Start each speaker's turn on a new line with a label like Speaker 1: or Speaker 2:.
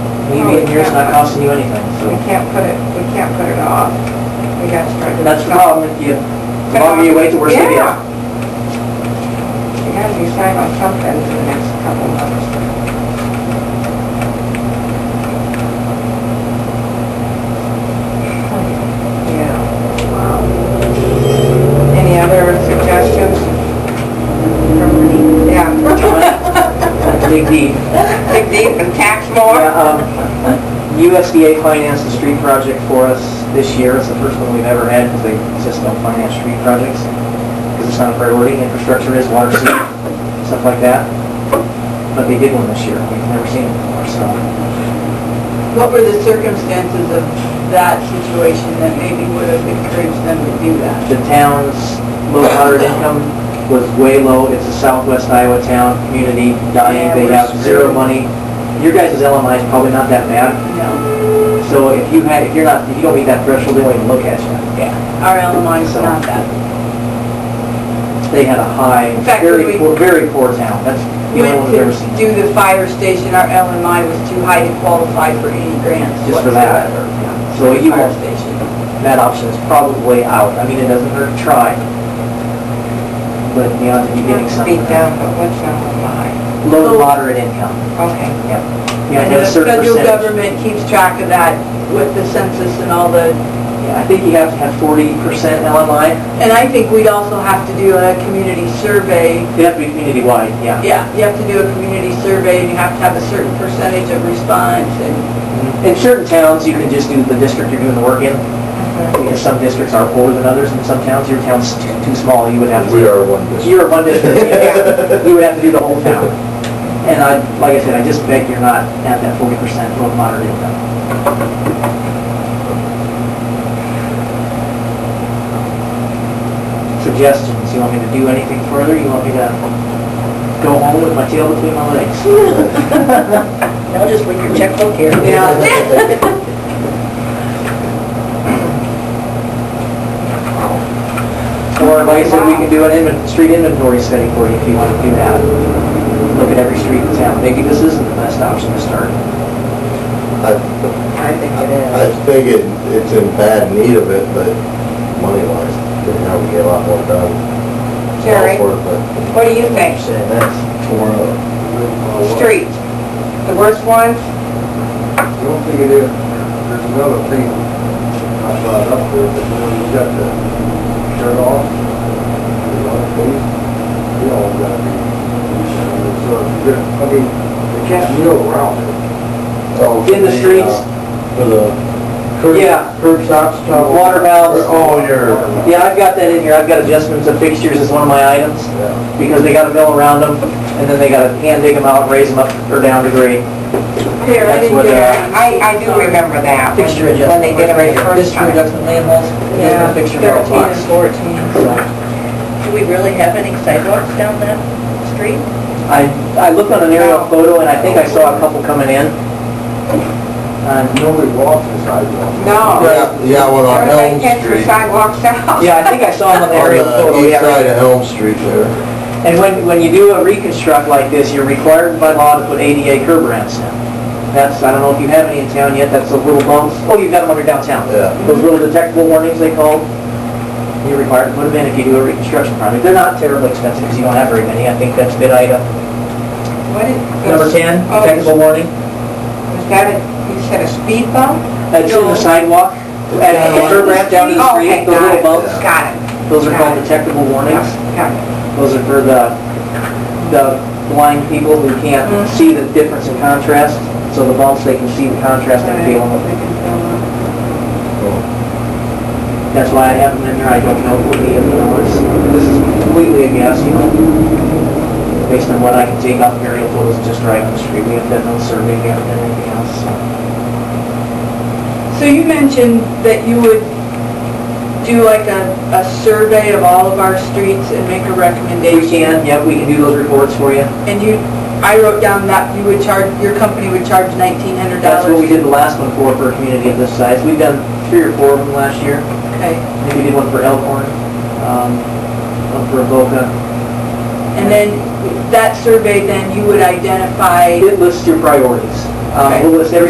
Speaker 1: you in here, it's not costing you anything, so.
Speaker 2: We can't put it, we can't put it off. We got to start.
Speaker 1: And that's the problem, if you, the longer you wait, the worse it
Speaker 2: Yeah.
Speaker 1: gets.
Speaker 2: We gotta decide on something for the next couple of months. Yeah. Wow. Any other suggestions? Yeah.
Speaker 1: Dig deep.
Speaker 2: Dig deep and tax
Speaker 1: Yeah,
Speaker 2: more?
Speaker 1: um, USDA financed a street project for us this year. It's the first one we've ever had because they just don't finance street projects because it's not a priority. Infrastructure is, water, sewer, stuff like that. But they did one this year. We've never seen it before, so.
Speaker 3: What were the circumstances of that situation that maybe would have encouraged them to do that?
Speaker 1: The town's low moderate income was way low. It's a southwest Iowa town, community dying. They have zero money. Your guys' LMI is probably not that bad.
Speaker 3: No,
Speaker 1: So if you had, if you're not, if you don't meet that threshold, they won't even look at you.
Speaker 3: our LMI is not that.
Speaker 1: They had a high,
Speaker 3: In fact,
Speaker 1: very
Speaker 3: we-
Speaker 1: poor, very poor town. That's the only one
Speaker 3: Went
Speaker 1: we've
Speaker 3: to
Speaker 1: ever seen.
Speaker 3: do the fire station, our LMI was too high to qualify for any grants
Speaker 1: Just for that.
Speaker 3: whatsoever.
Speaker 1: So you
Speaker 3: Fire
Speaker 1: won't,
Speaker 3: station.
Speaker 1: that option is probably out. I mean, it doesn't hurt to try. But you ought to be getting something.
Speaker 2: Beat down, but what's on the line?
Speaker 1: Low to moderate income.
Speaker 2: Okay.
Speaker 1: You have
Speaker 3: And
Speaker 1: to have a
Speaker 3: the
Speaker 1: certain
Speaker 3: federal
Speaker 1: percentage.
Speaker 3: government keeps track of that with the census and all the,
Speaker 1: Yeah, I think you have to have forty percent LMI.
Speaker 3: and I think we'd also have to do a community survey.
Speaker 1: They have to be community-wide, yeah.
Speaker 3: Yeah, you have to do a community survey and you have to have a certain percentage of response and,
Speaker 1: In certain towns, you can just do the district you're doing the work in. Because some districts are poorer than others, and some towns, your town's too too small, you would have to.
Speaker 4: We are one district.
Speaker 1: You're a one district, yeah. you would have to do the whole town. And I, like I said, I just beg you're not at that forty percent low to moderate income. Suggestions, you want me to do anything further, you want me to go home with my tail between my legs?
Speaker 2: No, just bring your checkbook here.
Speaker 1: Yeah. Or like I said, we can do an inven, street inventory study for you if you want to do that. Look at every street in town. Maybe this isn't the best option to start.
Speaker 4: I
Speaker 2: I think it
Speaker 4: I
Speaker 2: is.
Speaker 4: think it, it's in bad need of it, but money-wise, they have to get a lot more done.
Speaker 2: Jerry,
Speaker 4: For it, but
Speaker 2: what do you think?
Speaker 4: saying that's uh, torn up.
Speaker 2: Street, the worst ones?
Speaker 5: I don't think it is. There's another thing I brought up there, but when you got the shirt off, you know, face, we all got to be. So, I mean, they can't kneel around it.
Speaker 4: Oh,
Speaker 1: In the
Speaker 4: uh,
Speaker 1: streets?
Speaker 4: For the curb,
Speaker 1: Yeah.
Speaker 4: curb stops, tunnels.
Speaker 1: Uh, Water valves.
Speaker 4: Oh, your,
Speaker 1: Yeah, I've got that in here. I've got adjustments of fixtures as one of my items
Speaker 4: yeah,
Speaker 1: because they gotta mill around them and then they gotta hand dig them out, raise them up or down to grade.
Speaker 3: Here, I
Speaker 1: That's
Speaker 3: didn't
Speaker 1: what,
Speaker 3: get
Speaker 1: uh,
Speaker 3: it.
Speaker 2: I, I do remember that, when
Speaker 1: Fixture
Speaker 2: when
Speaker 1: adjustment.
Speaker 2: they did it the first
Speaker 1: Fixture
Speaker 2: time.
Speaker 1: adjustment manholes, adjustment fixture mailbox.
Speaker 3: fourteen.
Speaker 1: So-
Speaker 3: Do we really have any sidewalks down that street?
Speaker 1: I, I looked on an aerial photo and I think I saw a couple coming in. Um,
Speaker 5: Nobody walks the sidewalk.
Speaker 2: No.
Speaker 4: yeah, yeah, well, on Elm
Speaker 2: Everybody gets their
Speaker 4: Street,
Speaker 2: sidewalks out.
Speaker 1: Oh, Yeah, I think I saw them on the aerial
Speaker 4: on
Speaker 1: photo,
Speaker 4: the east side
Speaker 1: yeah.
Speaker 4: of Elm Street there.
Speaker 1: And when, when you do a reconstruct like this, you're required by law to put ADA curb ramps in. That's, I don't know if you have any in town yet, that's those little bumps, oh, you've got them under downtown.
Speaker 4: Yeah.
Speaker 1: Those little detectable warnings they call, you're required to put them in if you do a reconstruction project. They're not terribly expensive because you don't have very many, I think that's bid item
Speaker 2: What is,
Speaker 1: number 10,
Speaker 2: Oh.
Speaker 1: detectable warning.
Speaker 2: was that, a- you said a speed bump?
Speaker 1: That's in the sidewalk, at the curb ramp down to the
Speaker 2: Oh,
Speaker 1: street,
Speaker 2: okay,
Speaker 1: those
Speaker 2: got
Speaker 1: little
Speaker 2: it.
Speaker 1: bumps.
Speaker 2: Got it.
Speaker 1: Those are called detectable warnings.
Speaker 2: Yeah,
Speaker 1: Those are for the, the blind people who can't see the difference in contrast. So the bumps, they can see the contrast and feel them.
Speaker 2: yeah.
Speaker 4: Oh.
Speaker 1: That's why I have them in there. I don't know what the, you know, it's, this is completely a guess, you know. Based on what I can take off aerial photos just right on the street. We haven't done no survey, we haven't done anything else, so.
Speaker 3: So you mentioned that you would do like a, a survey of all of our streets and make a
Speaker 1: We
Speaker 3: recommendation.
Speaker 1: can, yep, we can do those reports for you.
Speaker 3: And you, I wrote down that you would charge, your company would charge nineteen hundred dollars.
Speaker 1: That's what we did the last one for, for a community of this size. We've done three or four of them last year.
Speaker 3: Okay,
Speaker 1: Maybe we did one for Elkhorn, um, one for Boca.
Speaker 3: and then that survey, then you would identify
Speaker 1: It lists your priorities. Um, It lists every